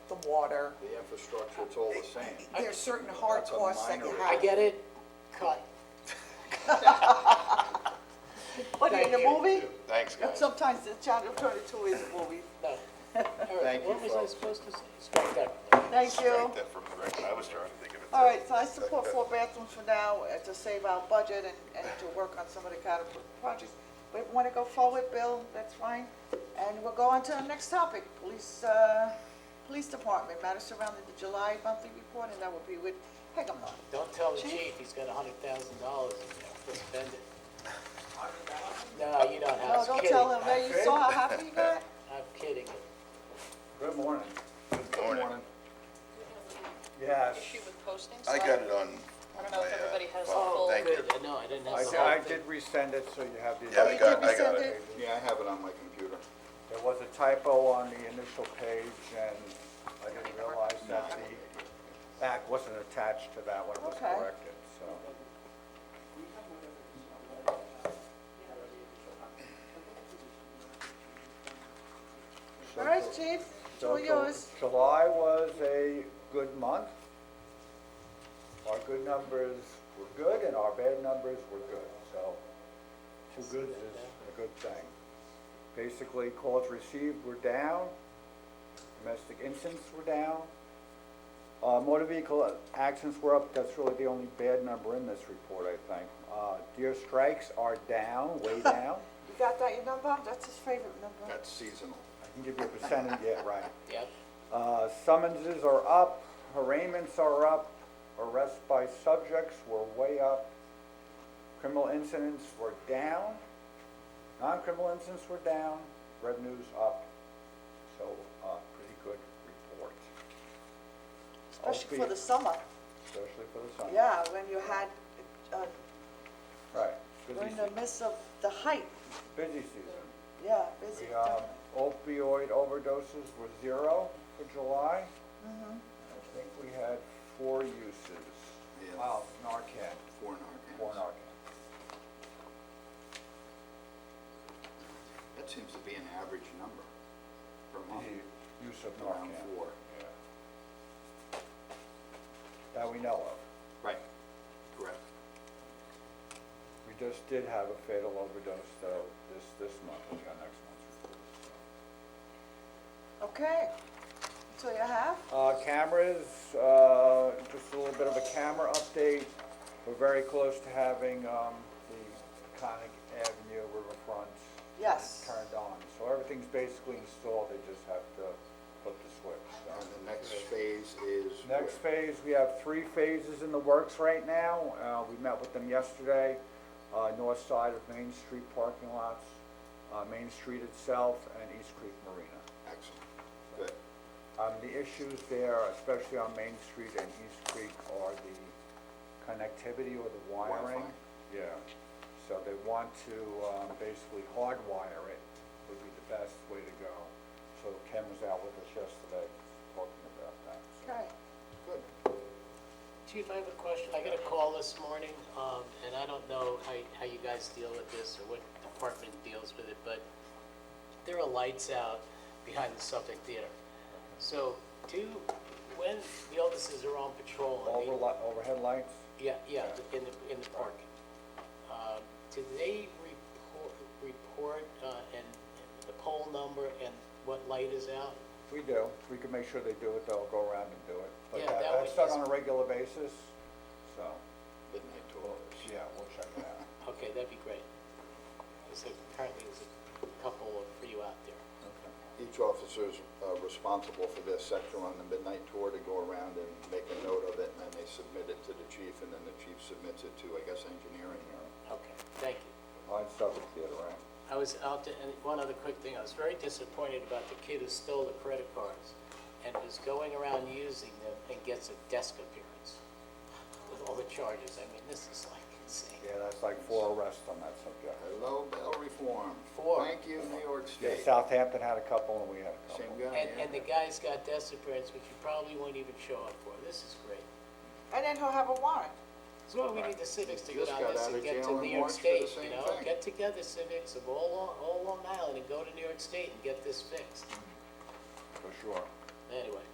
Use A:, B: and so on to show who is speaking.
A: water.
B: The infrastructure, it's all the same.
A: There's certain hard
B: That's a
A: costs that you
B: minor-
A: have.
C: I get it, cut.
D: What, in the
C: Thank you.
D: movie?
B: Thanks, guys.
D: Sometimes the channel twenty-two is a movie.
C: No. All right,
B: Thank
C: what
B: you,
C: was I
B: folks.
C: supposed to say? Strike that.
D: Thank you.
E: Strike that from the record, I was trying to think of it.
D: All right, so I support four bathrooms for now uh, to save our budget and, and to work on some of the kind of projects. We want to go forward, Bill, that's fine. And we'll go on to the next topic, police, uh, police department, matters surrounding the July monthly report, and that will be with Heckamon.
C: Don't tell the
D: Chief?
C: chief he's got a hundred thousand dollars in there, to spend it. No, you don't
D: No,
C: have, I'm
D: don't
C: kidding,
D: tell him, that you saw how happy he got?
C: I'm kidding.
B: Good morning. Good
E: morning.
B: Yes.
F: issue with postings?
E: I got it on.
F: I don't know if
E: my, uh,
F: everybody has the
E: phone.
F: full-
E: Thank you.
C: Oh, Good, no, I didn't
G: I
C: have
G: did-
C: the whole
G: I
C: thing.
G: did resend it, so you have
E: Yeah, I
G: the,
E: got, I got
D: resend
E: it.
B: Yeah, I have it on my computer.
G: there was a typo on the initial page, and I didn't realize that the back wasn't attached to that one, it was
D: Okay.
G: corrected, so.
D: All right, chief, it's all
G: So Ju-
D: yours.
G: July was a good month. Our good numbers were good and our bad numbers were good, so two goods is a good thing. Basically, calls received were down, domestic incidents were down. Uh, motor vehicle accidents were up, that's really the only bad number in this report, I think. Uh, deer strikes are down, way down.
D: You got that, your number? That's his favorite number.
B: That's seasonal.
G: I can give you a percentage, yeah, right.
C: Yep,
G: Uh, Summonses are up, arraignments are up, arrests by subjects were way up, criminal incidents were down, non-criminal incidents were down, revenues up, so, uh, pretty good report.
D: Especially Oh, for
G: Albeit-
D: the summer,
G: Especially for the summer.
D: yeah, when you had, uh,
G: Right, busy
D: during the
G: season,
D: midst of the height,
G: busy season.
D: yeah, busy.
G: The um, opioid overdoses were zero for July. I think we had four uses.
B: Yeah.
G: Wow, Narcan,
B: Four
G: four
B: Narcan.
G: Narcan.
B: That seems to be an average number per month,
G: The use of
B: around
G: Narcan.
B: four.
G: Yeah. That we know of.
B: Right. Correct.
G: We just did have a fatal overdose, though, this, this month, we got next month's report. so.
D: Okay, so you have?
G: Uh, cameras, uh, just a little bit of a camera update. We're very close to having, um, the Conic Avenue riverfront
D: Yes.
G: turned on. So everything's basically installed, they just have to flip the switch,
B: And
G: so.
B: the next phase is.
G: Next
B: what?
G: phase, we have three phases in the works right now. Uh, we met with them yesterday, uh, north side of Main Street parking lots, uh, Main Street itself, and East Creek Marina.
B: Excellent. Good.
G: Um, the issues there, especially on Main Street and East Creek, are the connectivity or the wiring.
B: Wi-Fi.
G: Yeah, so they want to, um, basically hardwire it would be the best way to go. So Ken was out with us yesterday talking about that, so.
D: Okay,
B: Good.
C: Chief, I have a question. I got a call this morning, um, and I don't know how, how you guys deal with this or what department deals with it, but there are lights out behind the Suffolk Theater. So do, when the officers are on patrol, I mean,
G: Overli- Overhead lights?
C: yeah, yeah, in the, in the park, uh, do they report, report, uh, and the pole number and what light is out?
G: We do. We can make sure they do it, they'll go around and do it. But
C: Yeah,
G: that-
C: that
G: that's
C: would-
G: done on a regular basis, so,
B: Midnight to hours.
G: yeah, we'll check it out.
C: Okay, that'd be great. Because apparently there's a couple of you out there.
B: Each officer's uh, responsible for their sector on the midnight tour to go around and make a note of it, and then they submit it to the chief, and then the chief submits it to, I guess, engineering.
C: Okay, thank you.
G: On Suffolk Theater, right?
C: I was out there, and one other quick thing, I was very disappointed about the kid who stole the credit cards and was going around using them and gets a desk appearance with all the charges. I mean, this is like insane.
G: Yeah, that's like four arrests on that subject.
B: Hello, bail reform.
C: Four.
B: Thank you, New York
G: Yeah,
B: State.
G: Southampton had a couple and we had a couple.
B: Same guy,
C: And,
B: yeah.
C: and the guy's got desk appearance, which you probably won't even show up for. This is great.
D: and then he'll have a warrant.
C: So we need the civics to go
B: Just
C: down
B: got
C: this
B: out of
C: and get
B: jail
C: to
B: in
C: New York
B: March for the
C: State, you
B: same
C: know?
B: thing.
C: Get together civics of all, Long- all Long Island and go to New York State and get this fixed.
G: For sure.
B: Mm-hmm.
C: Anyway,